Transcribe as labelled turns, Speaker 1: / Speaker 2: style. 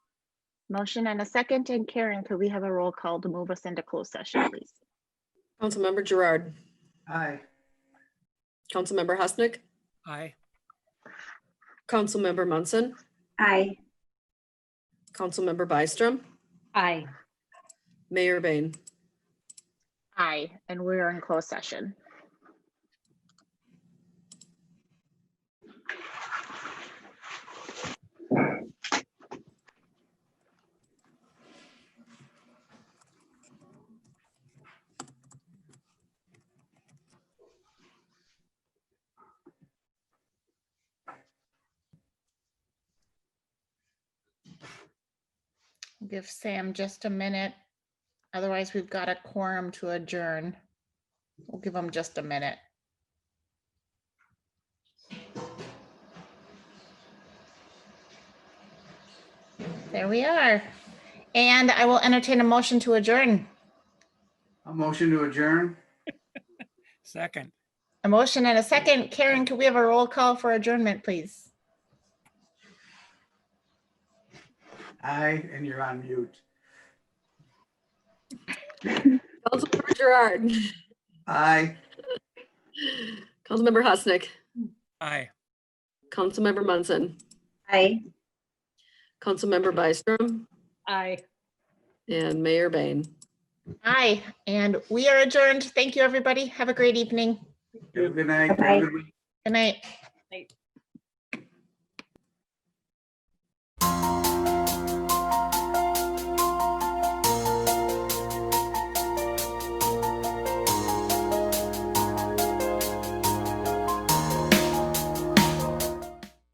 Speaker 1: Motion and a second. And Karen, could we have a roll call to move us into closed session, please?
Speaker 2: Councilmember Gerard,
Speaker 3: Aye.
Speaker 2: Councilmember Husnick,
Speaker 4: Aye.
Speaker 2: Councilmember Munson,
Speaker 5: Aye.
Speaker 2: Councilmember Byström,
Speaker 5: Aye.
Speaker 2: Mayor Bain.
Speaker 1: Aye, and we are in closed session.
Speaker 6: Give Sam just a minute. Otherwise, we've got a quorum to adjourn. We'll give him just a minute. There we are. And I will entertain a motion to adjourn.
Speaker 3: A motion to adjourn?
Speaker 4: Second.
Speaker 6: A motion and a second. Karen, could we have a roll call for adjournment, please?
Speaker 3: Aye, and you're on mute.
Speaker 2: Councilmember Gerard,
Speaker 3: Aye.
Speaker 2: Councilmember Husnick,
Speaker 4: Aye.
Speaker 2: Councilmember Munson,
Speaker 5: Aye.
Speaker 2: Councilmember Byström,
Speaker 5: Aye.
Speaker 2: and Mayor Bain.
Speaker 6: Aye, and we are adjourned. Thank you, everybody. Have a great evening.
Speaker 3: Have a Good night. Have a
Speaker 5: Aye.
Speaker 3: good week.
Speaker 6: Good night.